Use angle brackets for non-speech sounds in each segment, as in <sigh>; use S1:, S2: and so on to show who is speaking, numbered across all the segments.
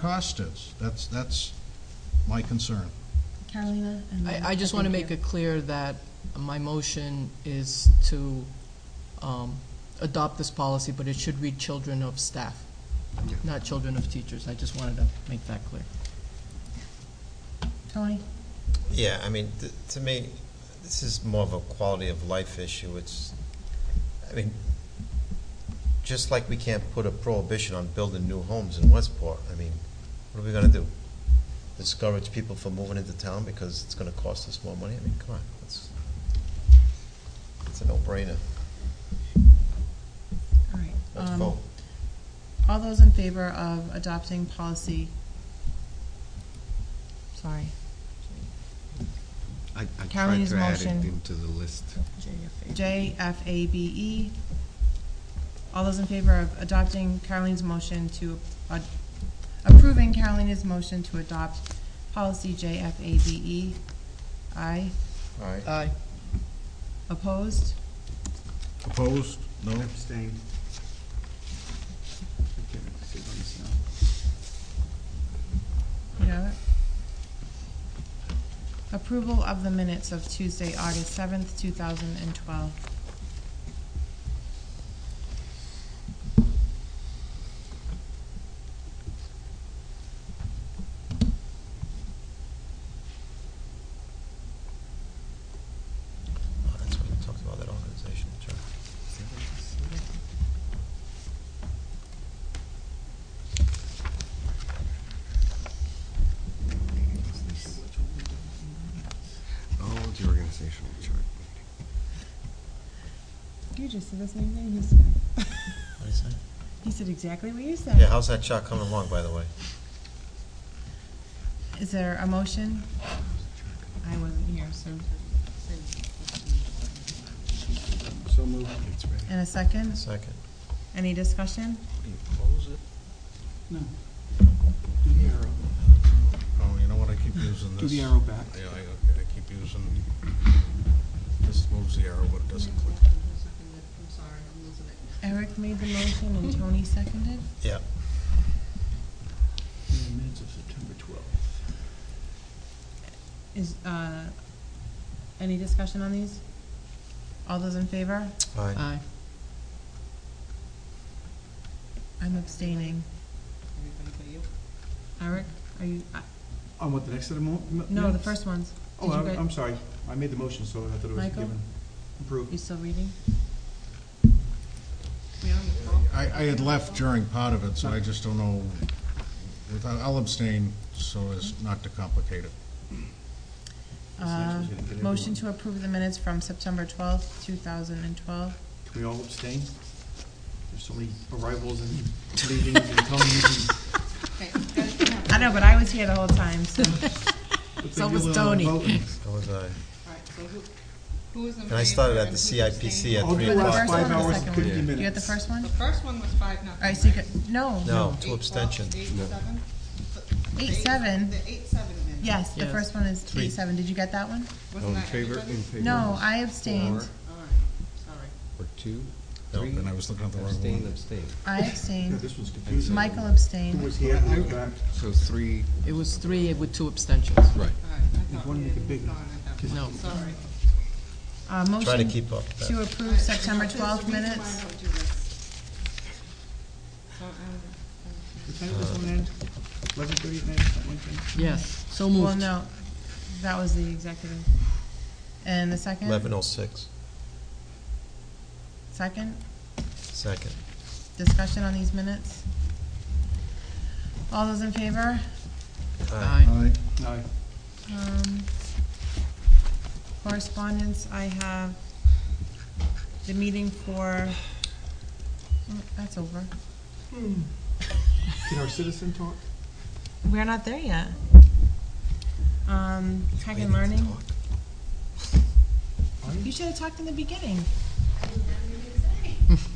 S1: cost is. That's, that's my concern.
S2: Carolina? and then-
S3: I, I just want to
S2: thank
S3: make
S2: you.
S3: it clear that my motion is to um, adopt this policy, but it should read children of staff, not children of teachers. I just wanted to make that clear.
S2: Tony?
S4: Yeah, I mean, th- to me, this is more of a quality of life issue. It's, I mean, just like we can't put a prohibition on building new homes in Westport, I mean, what are we gonna do? Discourage people from moving into town because it's gonna cost us more money? I mean, come on, it's, it's a no-brainer.
S2: All right.
S4: Let's
S2: um,
S4: vote.
S2: All those in favor of adopting policy, sorry,
S5: I, I tried
S2: Carolyn's
S5: to add it
S2: motion.
S5: into the list.
S2: JFABE. E, All those in favor of adopting Caroline's motion to, uh, approving Carolina's motion to adopt policy JFABE? E? Aye.
S4: All right,
S3: Aye.
S2: Opposed?
S1: Opposed? No?
S5: Abstain.
S2: You have it? Approval of the minutes of Tuesday, August seventh, two thousand and twelve.
S4: Oh, that's what we talked about, that organizational chart.
S5: Oh, the organizational chart meeting.
S2: You just said the same thing he said.
S4: What do you say?
S2: He said exactly what you
S4: Yeah,
S2: said.
S4: how's that chart coming along, by the way?
S2: Is there a motion? I wasn't here, so,
S5: So moved. It's ready.
S2: in a second,
S4: Second.
S2: any discussion?
S6: No. Do the arrow.
S1: Oh, you know what, I keep using this.
S6: Do the arrow back.
S1: Yeah, I, okay, I keep using, this moves the arrow, but it doesn't click.
S7: I'm sorry, I'm losing it.
S2: Eric made the motion and Tony seconded.
S4: Yeah.
S6: The minutes of September 12th.
S2: Is, uh, any discussion on these? All those in favor?
S4: All right.
S3: Aye.
S2: I'm abstaining.
S7: Everybody but you.
S2: Eric, are you, uh,
S6: On what, the next set of mo- m-
S2: no, the
S6: minutes?
S2: first ones.
S6: Oh,
S2: Did you
S6: I'm,
S2: guys-
S6: I'm sorry. I made the motion, so I thought it was
S2: Michael?
S6: given.
S2: You
S6: Approved.
S2: still reading?
S7: We on the call?
S1: I, I had left during part of it, so I just don't know, Without- I'll abstain so as not to complicate it.
S6: This next one's gonna get
S2: Uh, Motion to
S6: everyone.
S2: approve the minutes from September twelfth, two thousand and twelve.
S6: Can we all abstain? There's so many arrivals
S2: <laughs>
S6: and leavings and comings.
S7: Okay, you guys can have-
S2: I know, but I was here the whole time,
S3: <laughs>
S2: so.
S6: and-
S3: So
S6: But
S3: was
S6: you're the
S3: Tony.
S6: only one voting.
S2: <laughs>
S4: That was aye.
S7: All right, so who, who is in favor?
S4: And I started at
S7: and
S4: the
S7: who's abstaining?
S4: CIPC at
S6: All
S4: three
S6: the
S2: the
S4: o'clock.
S2: first
S6: last
S2: one or
S6: five
S2: the
S6: hours
S2: second
S6: and
S2: one?
S6: 50 minutes.
S2: You got the first one?
S7: The
S2: All
S7: first one was five, nothing,
S2: right, so you
S7: right?
S2: got, no.
S4: No,
S7: Eight,
S4: two
S7: well,
S4: abstentions.
S7: Eight, seven? The-
S2: Eight,
S7: the
S2: seven?
S7: The eight, seven minute.
S2: Yes, the
S3: Yes.
S2: first one is
S4: Three.
S2: eight seven. Did you get that one?
S7: Wasn't that
S5: favor,
S7: everybody?
S5: in favor.
S2: No, I
S5: Four,
S2: abstained.
S7: All right, sorry.
S5: or two,
S4: No,
S5: three.
S1: And I was looking at the wrong
S5: Abstain,
S1: one.
S5: abstain.
S2: I
S6: Yeah,
S2: abstained.
S6: This one's
S2: <laughs>
S6: confusing.
S2: Michael
S6: Who
S2: abstained.
S6: was here, who was back?
S5: So three,
S3: It was three with two abstentions.
S5: right.
S7: All right, I
S6: If
S7: thought
S6: one
S7: we
S6: make it
S7: had moved
S6: bigger.
S7: on at that
S6: Just-
S3: No.
S7: point, sorry.
S2: Uh,
S4: Try to
S2: motion
S4: keep up. with that.
S2: to
S7: All
S2: approve
S7: right,
S2: September
S7: there's a
S2: twelfth
S7: reason why I
S2: minutes.
S7: don't do this. So, um,
S6: What time did this one end? 11:30 at night, something like that?
S3: Yes, so
S2: Well,
S3: moved.
S2: no, that was the executive. And the second?
S4: Eleven oh six,
S2: Second?
S4: second.
S2: Discussion on these minutes? All those in favor?
S4: Aye.
S3: Aye.
S1: Aye.
S6: No.
S2: Um, Correspondence, I have the meeting for, mm, that's over.
S6: Can our citizen talk?
S2: We're not there yet. Um, Tech and
S4: Waiting to
S2: Learning,
S4: talk.
S6: Are you?
S2: you should have talked in the beginning.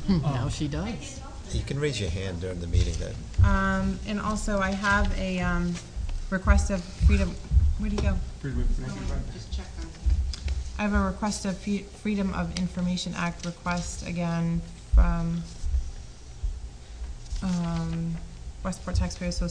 S2: Oh.
S3: <laughs> Now she does.
S4: You can raise your hand during the meeting then.
S2: Um, and also I have a, um, request of freedom, where'd he go?
S6: Pretty much, pretty much.
S7: someone just check on.
S2: I have a request of Fe- Freedom of Information Act request again from um, Westport Taxpayer Association